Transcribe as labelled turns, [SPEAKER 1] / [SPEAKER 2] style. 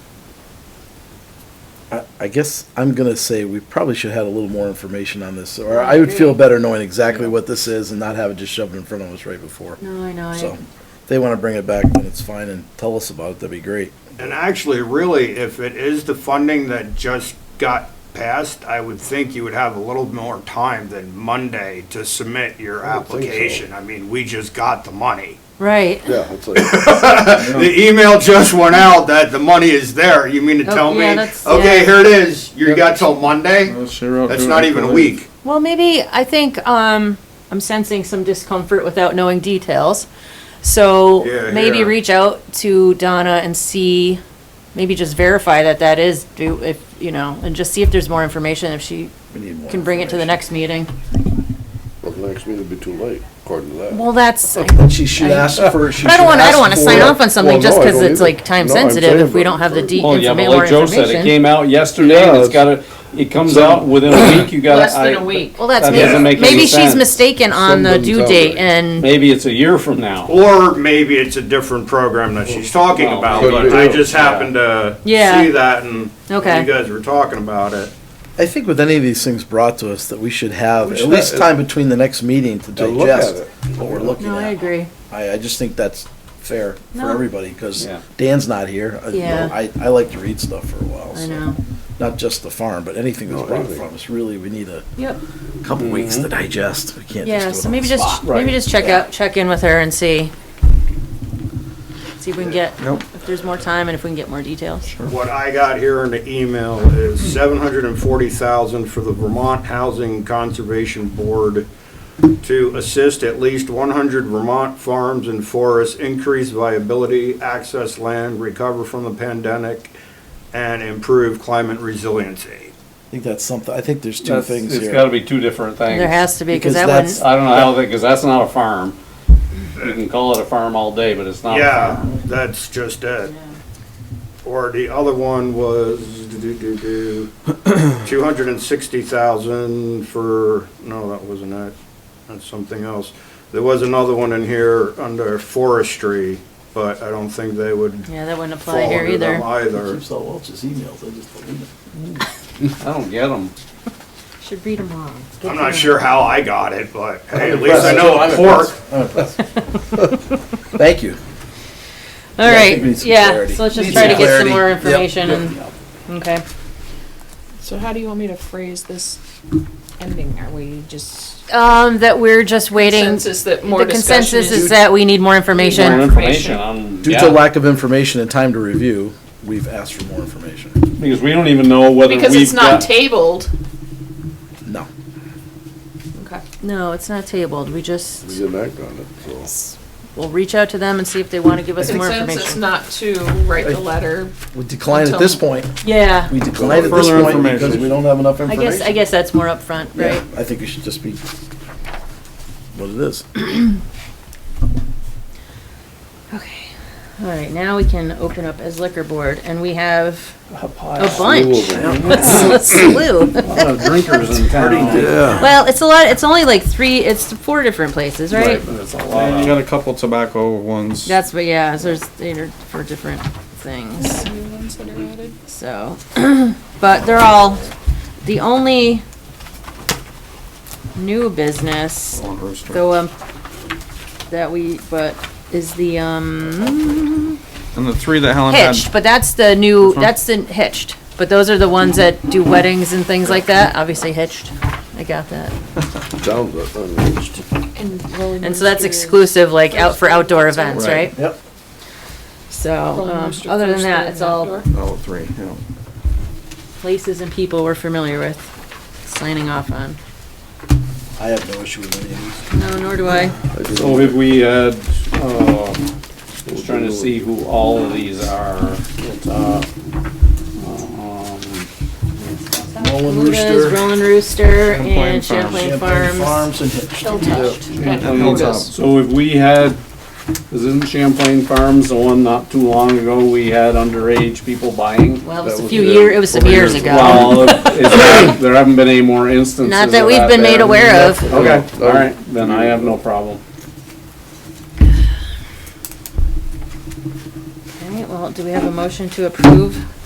[SPEAKER 1] I- I guess I'm gonna say we probably should have had a little more information on this, or I would feel better knowing exactly what this is and not have it just shoved in front of us right before.
[SPEAKER 2] No, I know. I-
[SPEAKER 1] So, if they wanna bring it back, then it's fine, and tell us about it, that'd be great.
[SPEAKER 3] And actually, really, if it is the funding that just got passed, I would think you would have a little more time than Monday to submit your
[SPEAKER 4] I would think so.
[SPEAKER 3] application. I mean, we just got the money.
[SPEAKER 2] Right.
[SPEAKER 4] Yeah, it's like,
[SPEAKER 3] The email just went out that the money is there. You mean to
[SPEAKER 2] Oh,
[SPEAKER 3] tell me,
[SPEAKER 2] yeah, that's-
[SPEAKER 3] okay,
[SPEAKER 2] yeah.
[SPEAKER 3] here it is, you got till Monday? That's not even a week.
[SPEAKER 2] Well, maybe, I think, um, I'm sensing some discomfort without knowing details. So
[SPEAKER 3] Yeah,
[SPEAKER 2] maybe
[SPEAKER 3] yeah.
[SPEAKER 2] reach out to Donna and see, maybe just verify that that is, do, if, you know, and just see if there's more information, if she
[SPEAKER 1] We need more.
[SPEAKER 2] can bring it to the
[SPEAKER 1] information.
[SPEAKER 2] next meeting.
[SPEAKER 4] well, the next meeting would be too late, according to that.
[SPEAKER 2] Well, that's, I
[SPEAKER 1] Then she should ask for, she should
[SPEAKER 2] but I don't want, I
[SPEAKER 1] ask
[SPEAKER 2] don't want to
[SPEAKER 1] for-
[SPEAKER 2] sign off on something
[SPEAKER 4] Well,
[SPEAKER 2] just
[SPEAKER 4] no, I
[SPEAKER 2] because
[SPEAKER 4] don't
[SPEAKER 2] it's
[SPEAKER 4] either.
[SPEAKER 2] like time
[SPEAKER 4] No, I'm
[SPEAKER 2] sensitive if
[SPEAKER 4] saying,
[SPEAKER 2] we
[SPEAKER 4] but
[SPEAKER 2] don't have the
[SPEAKER 4] for-
[SPEAKER 2] de-
[SPEAKER 5] Well, Oh, yeah,
[SPEAKER 2] informa-
[SPEAKER 5] but
[SPEAKER 2] more
[SPEAKER 5] like Joe said, it
[SPEAKER 2] information.
[SPEAKER 5] came out yesterday, and
[SPEAKER 4] Yeah,
[SPEAKER 5] it's
[SPEAKER 4] it's-
[SPEAKER 5] gotta, it comes out within a week, you gotta.
[SPEAKER 6] Less than
[SPEAKER 5] I-
[SPEAKER 6] a week.
[SPEAKER 2] Well, that's,
[SPEAKER 5] That doesn't
[SPEAKER 2] maybe,
[SPEAKER 5] make any
[SPEAKER 2] maybe she's
[SPEAKER 5] sense.
[SPEAKER 2] mistaken on the
[SPEAKER 4] Something's
[SPEAKER 2] due
[SPEAKER 4] out
[SPEAKER 2] date
[SPEAKER 4] there.
[SPEAKER 2] and,
[SPEAKER 5] Maybe it's a year from now.
[SPEAKER 3] Or maybe it's a different program that she's talking
[SPEAKER 5] Well,
[SPEAKER 3] about,
[SPEAKER 4] could
[SPEAKER 3] but
[SPEAKER 4] be.
[SPEAKER 3] I just happened to see
[SPEAKER 2] Yeah.
[SPEAKER 3] that and you
[SPEAKER 2] Okay.
[SPEAKER 3] guys were talking about it.
[SPEAKER 1] I think with any of these things brought to us, that we should have
[SPEAKER 4] We
[SPEAKER 1] at
[SPEAKER 4] should
[SPEAKER 1] least
[SPEAKER 4] have-
[SPEAKER 1] time between the next meeting to
[SPEAKER 4] To look at
[SPEAKER 1] digest
[SPEAKER 4] it.
[SPEAKER 1] what we're looking
[SPEAKER 2] no, I
[SPEAKER 1] at.
[SPEAKER 2] agree.
[SPEAKER 1] I, I just think that's fair for
[SPEAKER 2] No.
[SPEAKER 1] everybody, because
[SPEAKER 5] Yeah.
[SPEAKER 1] Dan's not here. Uh, you know,
[SPEAKER 2] Yeah.
[SPEAKER 1] I, I like to read stuff for a while,
[SPEAKER 2] I
[SPEAKER 1] so.
[SPEAKER 2] know.
[SPEAKER 1] Not just the farm, but anything that's
[SPEAKER 4] No,
[SPEAKER 1] brought
[SPEAKER 4] anything.
[SPEAKER 1] from us, really, we need a
[SPEAKER 2] Yep.
[SPEAKER 1] couple
[SPEAKER 5] Mm-hmm.
[SPEAKER 1] weeks to digest. We can't
[SPEAKER 2] Yeah,
[SPEAKER 1] just
[SPEAKER 2] so
[SPEAKER 1] do it on
[SPEAKER 2] maybe
[SPEAKER 1] the spot.
[SPEAKER 2] just, maybe just check out, check in with her and see. See if we can get, if there's more time and if we can get more details.
[SPEAKER 3] What I got here in the email is seven hundred and forty thousand for the Vermont Housing Conservation Board to assist at least one hundred Vermont farms and forests increase viability, access land, recover from the pandemic, and improve climate resiliency.
[SPEAKER 1] I think that's something, I think there's two
[SPEAKER 5] That's-
[SPEAKER 1] things
[SPEAKER 5] It's
[SPEAKER 1] here.
[SPEAKER 5] gotta be two different things.
[SPEAKER 2] There has to be, because
[SPEAKER 1] Because
[SPEAKER 2] that
[SPEAKER 1] that's-
[SPEAKER 2] wouldn't,
[SPEAKER 5] I don't know how they, cause that's not a farm. You can call it a farm all day, but it's not a
[SPEAKER 3] Yeah,
[SPEAKER 5] farm.
[SPEAKER 3] that's just it. Or the other one was two hundred and sixty thousand for, no, that wasn't it. That's something else. There was another one in here under forestry, but I don't think they would
[SPEAKER 2] yeah, that wouldn't
[SPEAKER 3] fall
[SPEAKER 2] apply here
[SPEAKER 3] under them
[SPEAKER 2] either.
[SPEAKER 3] either.
[SPEAKER 1] Keeps all Welch's emails, I just delete them.
[SPEAKER 5] I don't get them.
[SPEAKER 2] Should read them all.
[SPEAKER 3] I'm not sure how I got it, but hey, at least I know pork.
[SPEAKER 1] Thank you. Yeah,
[SPEAKER 2] All
[SPEAKER 1] I
[SPEAKER 2] right,
[SPEAKER 1] think we need some
[SPEAKER 2] yeah,
[SPEAKER 1] clarity.
[SPEAKER 2] so let's just
[SPEAKER 1] Need
[SPEAKER 2] try to
[SPEAKER 1] some
[SPEAKER 2] get some
[SPEAKER 1] clarity.
[SPEAKER 2] more
[SPEAKER 1] Yep,
[SPEAKER 2] information and, okay.
[SPEAKER 6] So how do you want me to phrase this ending? Are we just?
[SPEAKER 2] Um, that we're just waiting,
[SPEAKER 6] Consensus that more
[SPEAKER 2] the
[SPEAKER 6] discussion
[SPEAKER 2] consensus is
[SPEAKER 6] is.
[SPEAKER 2] that we need more
[SPEAKER 5] More
[SPEAKER 2] information.
[SPEAKER 5] information on,
[SPEAKER 1] Due to
[SPEAKER 5] yeah,
[SPEAKER 1] lack of information and time to review, we've asked for more information.
[SPEAKER 5] because we don't even know whether
[SPEAKER 6] Because
[SPEAKER 5] we've
[SPEAKER 6] it's not
[SPEAKER 5] got.
[SPEAKER 6] tabled.
[SPEAKER 1] No.
[SPEAKER 6] Okay.
[SPEAKER 2] No, it's not tabled, we
[SPEAKER 4] We
[SPEAKER 2] just,
[SPEAKER 4] didn't act on it, so.
[SPEAKER 2] we'll reach out to them and see if they want to give us more
[SPEAKER 6] Consensus
[SPEAKER 2] information.
[SPEAKER 6] not to write the letter.
[SPEAKER 1] We declined at this
[SPEAKER 6] Until-
[SPEAKER 1] point.
[SPEAKER 2] Yeah,
[SPEAKER 1] We declined at this
[SPEAKER 5] Further
[SPEAKER 1] point because
[SPEAKER 5] information.
[SPEAKER 1] we don't have enough
[SPEAKER 2] I
[SPEAKER 1] information.
[SPEAKER 2] guess, I guess that's more upfront,
[SPEAKER 1] Yeah,
[SPEAKER 2] right?
[SPEAKER 1] I think it should just be what it is.
[SPEAKER 2] Okay, all right, now we can open up as liquor board, and we have a
[SPEAKER 4] Slew of
[SPEAKER 2] bunch.
[SPEAKER 4] them.
[SPEAKER 2] Let's, let's slew.
[SPEAKER 5] A lot of drinkers in town.
[SPEAKER 2] Well, it's a lot, it's only like three, it's four different places, right?
[SPEAKER 5] But it's a
[SPEAKER 7] And
[SPEAKER 5] lot
[SPEAKER 7] you
[SPEAKER 5] of-
[SPEAKER 7] got a couple tobacco ones.
[SPEAKER 2] That's, what yeah, so there's, they're for different things,
[SPEAKER 6] New ones that are added.
[SPEAKER 2] so. But they're all, the only new business
[SPEAKER 7] on Rooster.
[SPEAKER 2] Though, um, that we, but, is the, um,
[SPEAKER 7] And the three that Helen had,
[SPEAKER 2] hitched, but that's the new,
[SPEAKER 7] Which one?
[SPEAKER 2] that's the hitched. But those are the ones that do weddings and things like that, obviously hitched, I got that.
[SPEAKER 4] Sounds like unreached.
[SPEAKER 6] And Rolling
[SPEAKER 2] And so that's
[SPEAKER 6] Rooster-
[SPEAKER 2] exclusive, like, out for outdoor events,
[SPEAKER 7] Right.
[SPEAKER 2] right?
[SPEAKER 1] Yep.
[SPEAKER 2] So,
[SPEAKER 6] Rolling
[SPEAKER 2] um,
[SPEAKER 6] Rooster
[SPEAKER 2] other than
[SPEAKER 6] first,
[SPEAKER 2] that,
[SPEAKER 6] then
[SPEAKER 2] it's all
[SPEAKER 6] outdoor.
[SPEAKER 7] oh, three, yeah.
[SPEAKER 2] places and people we're familiar with, signing off on.
[SPEAKER 1] I have no issue with any of these.
[SPEAKER 2] No, nor do I.
[SPEAKER 5] So if we had, uh, just trying to see who all of these are. It's, uh, um,
[SPEAKER 1] Nolan
[SPEAKER 2] Luda's,
[SPEAKER 1] Rooster,
[SPEAKER 2] Rolling Rooster,
[SPEAKER 7] Champlain
[SPEAKER 2] and
[SPEAKER 7] Farms.
[SPEAKER 2] Champlain
[SPEAKER 1] Champlain
[SPEAKER 2] Farms.
[SPEAKER 1] Farms, and Hitched.
[SPEAKER 6] And
[SPEAKER 7] And Hilltop.
[SPEAKER 6] Otis.
[SPEAKER 5] So if we had, is isn't Champlain Farms the one not too long ago we had underage people buying?
[SPEAKER 2] Well, it was
[SPEAKER 4] That
[SPEAKER 2] a
[SPEAKER 4] was
[SPEAKER 2] few
[SPEAKER 4] the-
[SPEAKER 2] year, it was some years ago.
[SPEAKER 5] Well, is that- there haven't been any more instances
[SPEAKER 2] Not
[SPEAKER 5] of
[SPEAKER 2] that we've been made
[SPEAKER 5] there.
[SPEAKER 2] aware of.
[SPEAKER 5] Okay, all right, then I have no problem.
[SPEAKER 2] All right, well, do we have a motion to approve